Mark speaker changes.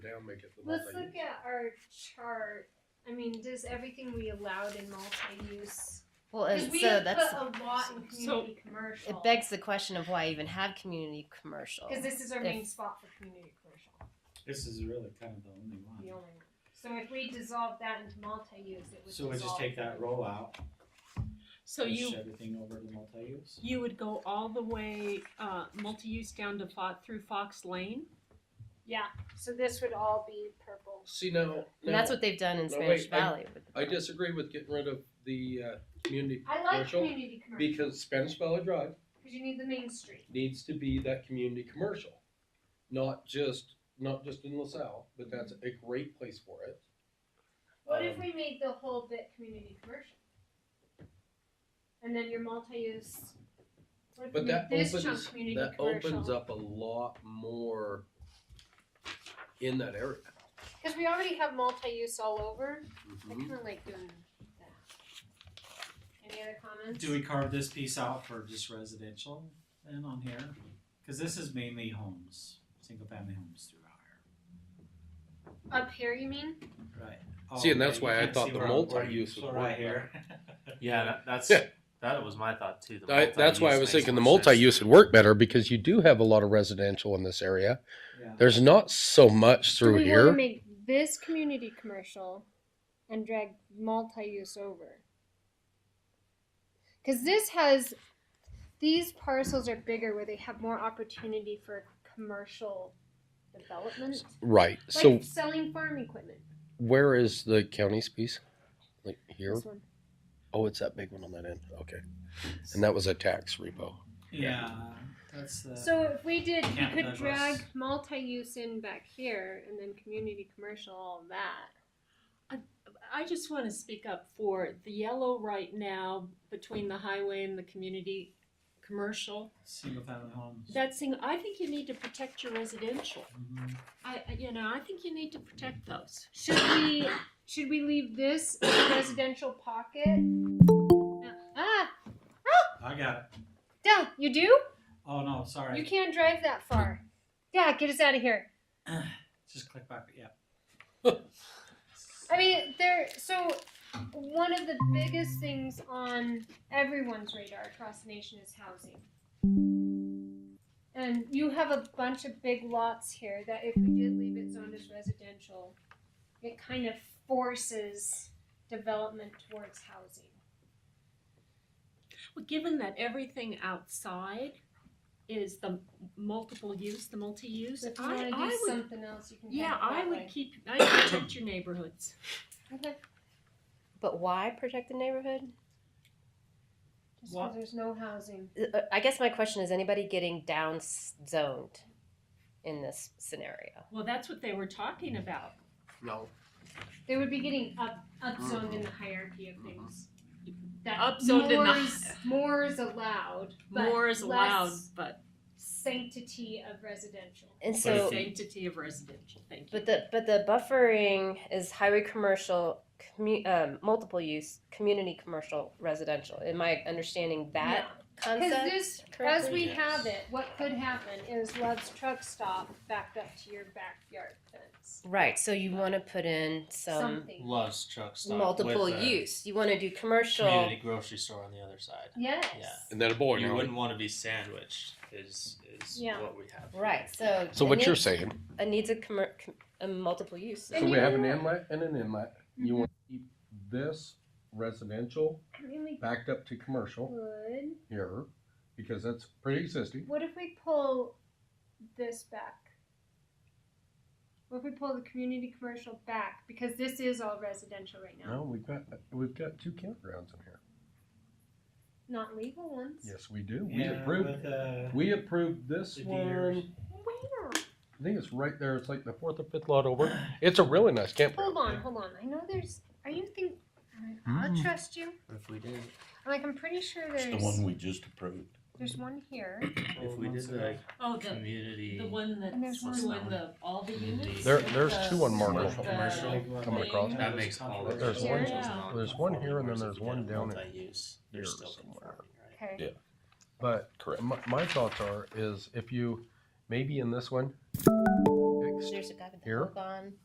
Speaker 1: down, make it the
Speaker 2: Let's
Speaker 1: multi.
Speaker 2: look at our chart. I mean, does everything we allowed in multi-use?
Speaker 3: Well,
Speaker 2: Because
Speaker 3: and
Speaker 2: we
Speaker 3: so
Speaker 2: have
Speaker 3: that's
Speaker 2: put a lot in
Speaker 4: so-
Speaker 2: community commercial.
Speaker 3: it begs the question of why even have community commercial.
Speaker 2: because this is our
Speaker 3: if-
Speaker 2: main spot for community commercial,
Speaker 5: This is really kind of the only
Speaker 2: the
Speaker 5: one.
Speaker 2: only one. So if we dissolve that into multi-use, it would.
Speaker 5: So we just
Speaker 2: dissolve
Speaker 5: take that
Speaker 2: the-
Speaker 5: roll out,
Speaker 4: So
Speaker 5: push
Speaker 4: you
Speaker 5: everything over to multi-use?
Speaker 4: you would go all the way uh, multi-use down to Fo- through Fox Lane.
Speaker 2: Yeah. So this would all be purple.
Speaker 1: See now,
Speaker 3: and that's what they've done in
Speaker 1: No,
Speaker 3: Spanish
Speaker 1: wait, I-
Speaker 3: Valley. with
Speaker 1: I disagree with getting rid of the uh, community
Speaker 2: I like
Speaker 1: Commercial,
Speaker 2: community commercial because
Speaker 1: because Spanish Valley Drive
Speaker 2: you need the main street.
Speaker 1: needs to be that community commercial, not just not just in LaSalle, but that's a great place for it.
Speaker 2: What if
Speaker 1: Um,
Speaker 2: we made the whole bit community commercial? And then your multi-use. What if we
Speaker 1: But
Speaker 2: made
Speaker 1: that
Speaker 2: this
Speaker 1: opens-
Speaker 2: chunk community
Speaker 1: that
Speaker 2: commercial?
Speaker 1: opens up a lot more in that area.
Speaker 2: Because we already have multi-use all over. I
Speaker 6: Mm-hmm.
Speaker 1: Mhm.
Speaker 2: kind of like doing that. Any other comments?
Speaker 5: Do we carve this piece out for just residential then on here? Cause this is mainly homes, single family homes throughout
Speaker 2: Up here, you mean?
Speaker 5: here. Right.
Speaker 1: See,
Speaker 5: Oh,
Speaker 1: and that's
Speaker 5: yeah, you
Speaker 1: why I
Speaker 5: can't
Speaker 1: thought
Speaker 5: see
Speaker 1: the
Speaker 5: where I'm pointing.
Speaker 1: multi-use
Speaker 5: So
Speaker 1: would
Speaker 5: Right
Speaker 1: work
Speaker 5: here.
Speaker 6: Yeah, that, that's
Speaker 1: Yeah.
Speaker 6: that was my thought too. the
Speaker 1: I, that's why I was
Speaker 6: multi-use makes
Speaker 1: thinking the
Speaker 6: more sense.
Speaker 1: multi-use would work better because you do have a lot of residential in this area.
Speaker 5: Yeah.
Speaker 1: There's not so much through
Speaker 2: we
Speaker 1: here.
Speaker 2: want to make this community commercial and drag multi-use over. Because this has, these parcels are bigger where they have more opportunity for commercial development.
Speaker 1: right.
Speaker 2: Like
Speaker 1: so
Speaker 2: selling farm equipment.
Speaker 1: where is the county's piece? Like here?
Speaker 2: This one.
Speaker 1: Oh, it's that big one on that end. Okay. And that was a tax repo.
Speaker 5: Yeah, that's the.
Speaker 2: So if we did, we
Speaker 5: Camp
Speaker 2: could
Speaker 5: Douglas.
Speaker 2: drag multi-use in back here and then community commercial, all that.
Speaker 4: I just want to speak up for the yellow right now between the highway and the community commercial.
Speaker 5: Single family homes.
Speaker 4: That thing, I think you need to protect your residential.
Speaker 5: Mhm.
Speaker 4: I, I- you know, I think you need to protect those.
Speaker 2: Should we should we leave this in the residential pocket? Ah,
Speaker 5: I got it.
Speaker 2: Dell, you do?
Speaker 5: Oh no,
Speaker 2: You
Speaker 5: sorry.
Speaker 2: can't drive that far. Yeah, get us out of here.
Speaker 5: Just click back, yeah.
Speaker 2: I mean, there. So one of the biggest things on everyone's radar across the nation is housing. And you have a bunch of big lots here that if we did leave it zoned as residential, it kind of forces development towards housing.
Speaker 4: Well, given that everything outside is the multiple use, the multi-use,
Speaker 2: So if you
Speaker 4: I,
Speaker 2: want to
Speaker 4: I
Speaker 2: do
Speaker 4: would,
Speaker 2: something else, you can. have
Speaker 4: yeah,
Speaker 2: it
Speaker 4: I
Speaker 2: that way.
Speaker 4: would keep, I protect your neighborhoods.
Speaker 2: Okay.
Speaker 3: But why protect the neighborhood?
Speaker 2: Just
Speaker 5: What-
Speaker 2: because there's no housing.
Speaker 3: Uh, I guess my question is: anybody getting down s- zoned in this scenario?
Speaker 4: Well, that's what they were talking about.
Speaker 1: No.
Speaker 2: They would be getting up upzoned in the
Speaker 3: Uh-huh.
Speaker 2: hierarchy of things. That
Speaker 4: Upzoned in the-
Speaker 2: more is, more is allowed. but
Speaker 4: More is allowed,
Speaker 2: less
Speaker 4: but
Speaker 2: Sanctity of residential.
Speaker 3: And
Speaker 6: But
Speaker 3: so,
Speaker 6: if
Speaker 4: sanctity of residential, thank you.
Speaker 3: but the but the buffering is highway commercial, commu- um, multiple use, community commercial, residential. Am I understanding that
Speaker 2: Because
Speaker 3: concept?
Speaker 2: this, as
Speaker 3: correctly?
Speaker 2: we have it, what could happen is Love's truck stop backed up to your backyard fence.
Speaker 3: Right. So you want to put in some
Speaker 2: Something.
Speaker 6: Loves truck stop.
Speaker 3: multiple
Speaker 6: with a
Speaker 3: use. You want to do commercial.
Speaker 6: Community grocery store on the other side.
Speaker 2: Yes.
Speaker 6: Yeah.
Speaker 1: And then a boy.
Speaker 6: you wouldn't want to be sandwiched. Is is
Speaker 2: Yeah.
Speaker 6: what we have. here.
Speaker 3: Right. So
Speaker 1: So
Speaker 3: it
Speaker 1: what you're
Speaker 3: needs-
Speaker 1: saying?
Speaker 3: It needs a, commer- com- a multiple use.
Speaker 2: And
Speaker 1: So we
Speaker 2: you Mm-hmm.
Speaker 1: have an
Speaker 2: know-
Speaker 1: inlet and an inlet. You want to keep this residential
Speaker 2: Really
Speaker 1: backed up to commercial
Speaker 2: good.
Speaker 1: here because that's pre-existing.
Speaker 2: What if we pull this back? What if we pull the community commercial back? Because this is all residential right now.
Speaker 1: No, we've got we've got two campgrounds in here.
Speaker 2: Not legal ones.
Speaker 1: Yes, we do. We
Speaker 5: Yeah,
Speaker 1: approved.
Speaker 5: with, uh,
Speaker 1: we approved this
Speaker 5: The deers.
Speaker 1: one.
Speaker 2: Where?
Speaker 1: I think it's right there. It's like the fourth or fifth lot over. It's a really nice campground.
Speaker 2: Hold on, hold on. I know there's. Are you think? I'll
Speaker 1: Mm.
Speaker 2: trust you.
Speaker 6: If we did,
Speaker 2: I'm Like I'm pretty sure
Speaker 7: Hmm. It's
Speaker 2: there's.
Speaker 7: the one we just approved.
Speaker 2: There's one here.
Speaker 6: if we did like
Speaker 4: Oh, the,
Speaker 6: community.
Speaker 4: the one
Speaker 2: And there's
Speaker 4: that's
Speaker 2: one-
Speaker 4: doing the, all the units?
Speaker 1: There-
Speaker 4: with
Speaker 1: there's
Speaker 4: the-
Speaker 1: two on Marble.
Speaker 4: with the-
Speaker 6: Commercial.
Speaker 1: Coming across.
Speaker 6: That makes all of
Speaker 1: There's
Speaker 6: those
Speaker 2: one-
Speaker 6: changes
Speaker 4: Yeah.
Speaker 6: not
Speaker 1: there's one here and then
Speaker 6: conforming, whereas
Speaker 1: there's
Speaker 6: if you
Speaker 1: one
Speaker 6: did a
Speaker 1: down in
Speaker 6: multi-use, they're
Speaker 1: here
Speaker 6: still
Speaker 1: somewhere.
Speaker 6: conforming, right?
Speaker 2: Okay.
Speaker 7: Yeah.
Speaker 1: But
Speaker 7: Correct.
Speaker 1: my, my thoughts are is if you maybe in this one
Speaker 7: next?
Speaker 3: There's a guy with the
Speaker 7: Here?
Speaker 3: hook on.